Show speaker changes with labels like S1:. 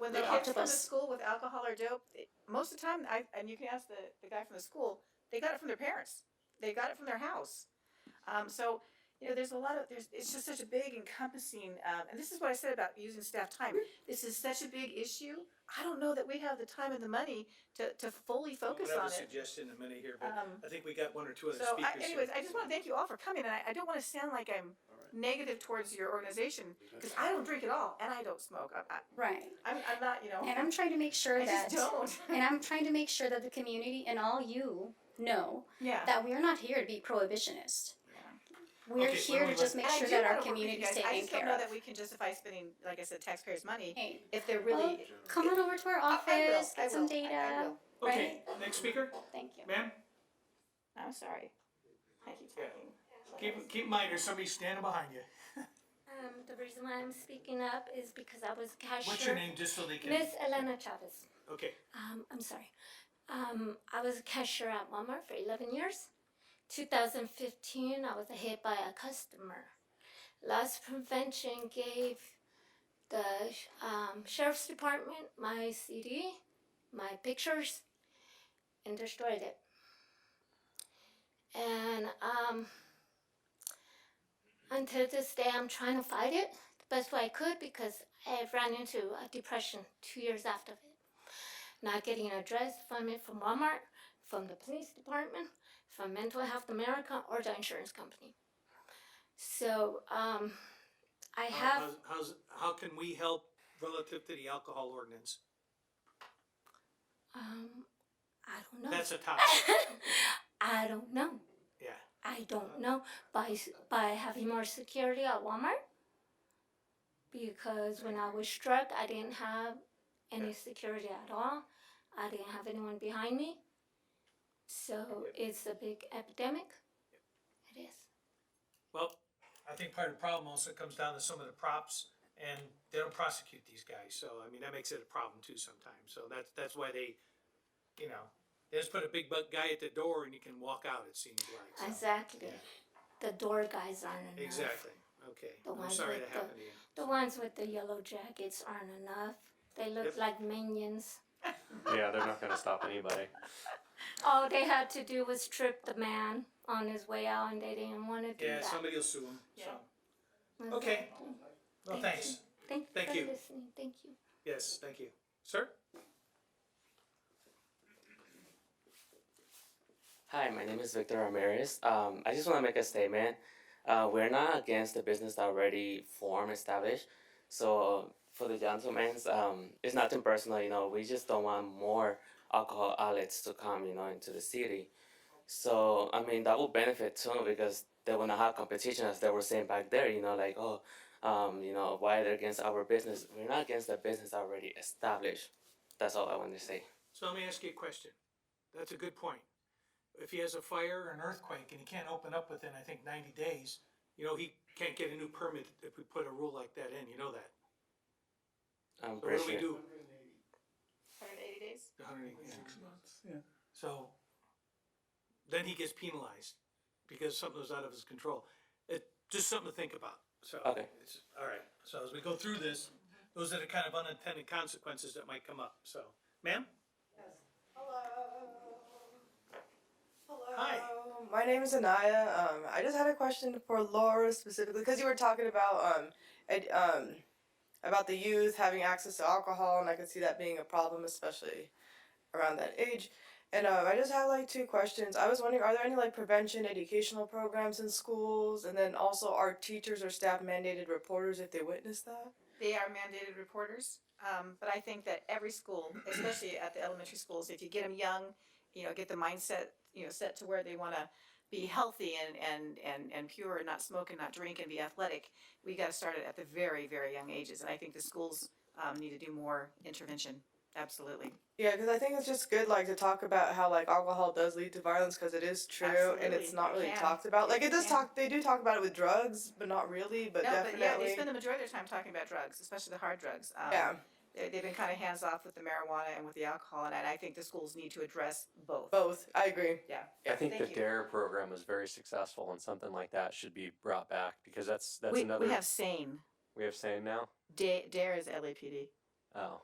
S1: when the
S2: The
S1: kids from the
S2: octopus.
S1: school with alcohol or dope, they- most of the time, I, and you can ask the, the guy from the school, they got it from their parents. They got it from their house. Um, so, you know, there's a lot of, there's, it's just such a big encompassing, um, and this is what I said about using staff time. This is such a big issue. I don't know that we have the time and the money to, to fully focus
S3: We'll
S1: on
S3: have a
S1: it.
S3: suggestion in a minute here, but
S1: Um,
S3: I think we got one or two other
S1: so I,
S3: speakers. here.
S1: anyways, I just want to thank you all for coming, and I, I don't want to sound like I'm
S4: Alright.
S1: negative towards your organization, because I don't drink at all, and I don't smoke. I, I,
S2: Right.
S1: I'm, I'm not, you know,
S2: And I'm trying to make sure
S1: I
S2: that
S1: just don't.
S2: and I'm trying to make sure that the community and all you know
S1: yeah.
S2: that we're not here to be prohibitionist. We're
S3: Okay,
S2: here
S3: why
S2: to
S3: don't we
S2: just
S3: let-
S2: make
S1: And I
S2: sure
S1: do
S2: that
S1: wanna
S2: our
S1: work with you
S2: community is
S1: guys. I
S2: taken
S1: just don't
S2: care
S1: know
S2: of.
S1: that we can justify spending, like I said, taxpayers' money
S2: Hey,
S1: if they're really.
S2: come on over to our
S1: I-
S2: office,
S1: I will, I
S2: get some
S1: will, I- I
S2: data.
S1: will.
S3: Okay, next speaker,
S2: Thank you.
S3: ma'am,
S1: I'm sorry. I keep
S3: Yeah.
S1: talking.
S3: keep, keep in mind, there's somebody standing behind you.
S5: Um, the reason why I'm speaking up is because I was a cashier.
S3: What's your name, just so they can,
S5: Miss Elena Chavez.
S3: okay,
S5: Um, I'm sorry. Um, I was a cashier at Walmart for 11 years. 2015, I was hit by a customer. Loss prevention gave the um, sheriff's department my CD, my pictures, and destroyed it. And um, until this day, I'm trying to fight it the best way I could because I ran into a depression two years after it not getting address from it from Walmart, from the police department, from Mental Health America, or the insurance company. So um, I have.
S3: how, how's, how can we help relative to the alcohol ordinance?
S5: Um, I don't know.
S3: That's a topic,
S1: Ah!
S5: I don't know.
S3: yeah.
S5: I don't know by s- by having more security at Walmart because when I was struck, I didn't have any security at all. I didn't have anyone behind me. So it's a big epidemic. It is.
S3: Well, I think part of the problem also comes down to some of the props, and they don't prosecute these guys, so, I mean, that makes it a problem too sometimes, so that's, that's why they, you know, they just put a big buck guy at the door and you can walk out, it seems like, so.
S5: Exactly. The door guys aren't enough.
S3: Exactly, okay,
S5: The
S3: I'm
S5: ones
S3: sorry
S5: with
S3: that
S5: the-
S3: happened to you.
S5: The ones with the yellow jackets aren't enough. They look
S3: Yep.
S5: like minions.
S6: Yeah, they're not gonna stop anybody.
S5: All they had to do was trip the man on his way out, and they didn't want to do
S3: Yeah,
S5: that.
S3: somebody will sue him, so,
S1: Yeah.
S3: okay,
S5: Exactly.
S3: well,
S5: Thank
S3: thanks,
S5: you. Thank you
S3: Thank
S5: for
S3: you.
S5: listening. Thank you.
S3: yes, thank you. Sir?
S7: Hi, my name is Victor Ramirez. Um, I just want to make a statement. Uh, we're not against the business that already formed, established. So for the gentlemen's, um, it's nothing personal. You know, we just don't want more alcohol outlets to come, you know, into the city. So I mean, that would benefit too because they will not have competition, as they were saying back there. You know, like oh, um, you know, why they're against our business? We're not against the business already established. That's all I want to say.
S3: So let me ask you a question. That's a good point. If he has a fire or an earthquake and he can't open up within, I think, ninety days, you know, he can't get a new permit if we put a rule like that in, you know that.
S7: I'm
S3: So what
S7: pretty
S3: do we
S7: sure.
S3: do?
S1: 180 days.
S3: A hundred and eighty. So then he gets penalized because something was out of his control. It, just something to think about. So.
S7: Okay.
S3: it's- All right. So as we go through this, those are the kind of unintended consequences that might come up. So, ma'am?
S8: Hello.
S3: Hi.
S8: My name is Anaya. Um, I just had a question for Laura specifically because you were talking about um, ed, um, about the youth having access to alcohol, and I could see that being a problem, especially around that age. And um, I just had like two questions. I was wondering, are there any like prevention educational programs in schools? And then also, are teachers or staff mandated reporters if they witness that?
S1: They are mandated reporters, um, but I think that every school, especially at the elementary schools, if you get them young, you know, get the mindset, you know, set to where they want to be healthy and, and, and, and pure and not smoke and not drink and be athletic, we got to start it at the very, very young ages. And I think the schools um, need to do more intervention. Absolutely.
S8: Yeah, because I think it's just good, like, to talk about how, like, alcohol does lead to violence, because it is true, and
S1: Absolutely,
S8: it's not
S1: it
S8: really
S1: can.
S8: talked about. Like, it does
S1: Yeah.
S8: talk, they do talk about it with drugs, but not really, but
S1: no,
S8: definitely.
S1: but yeah, they spend the majority of their time talking about drugs, especially the hard drugs. Um,
S8: Yeah,
S1: they- They've been kind of hands off with the marijuana and with the alcohol, and I think the schools need to address both.
S8: both. I agree.
S6: I think
S1: Thank
S6: the
S1: you.
S6: DARE program was very successful, and something like that should be brought back because that's that's
S1: we,
S6: another
S1: we have SANE.
S6: we have saying now.
S1: Da- Dare is LAPD.
S6: Oh,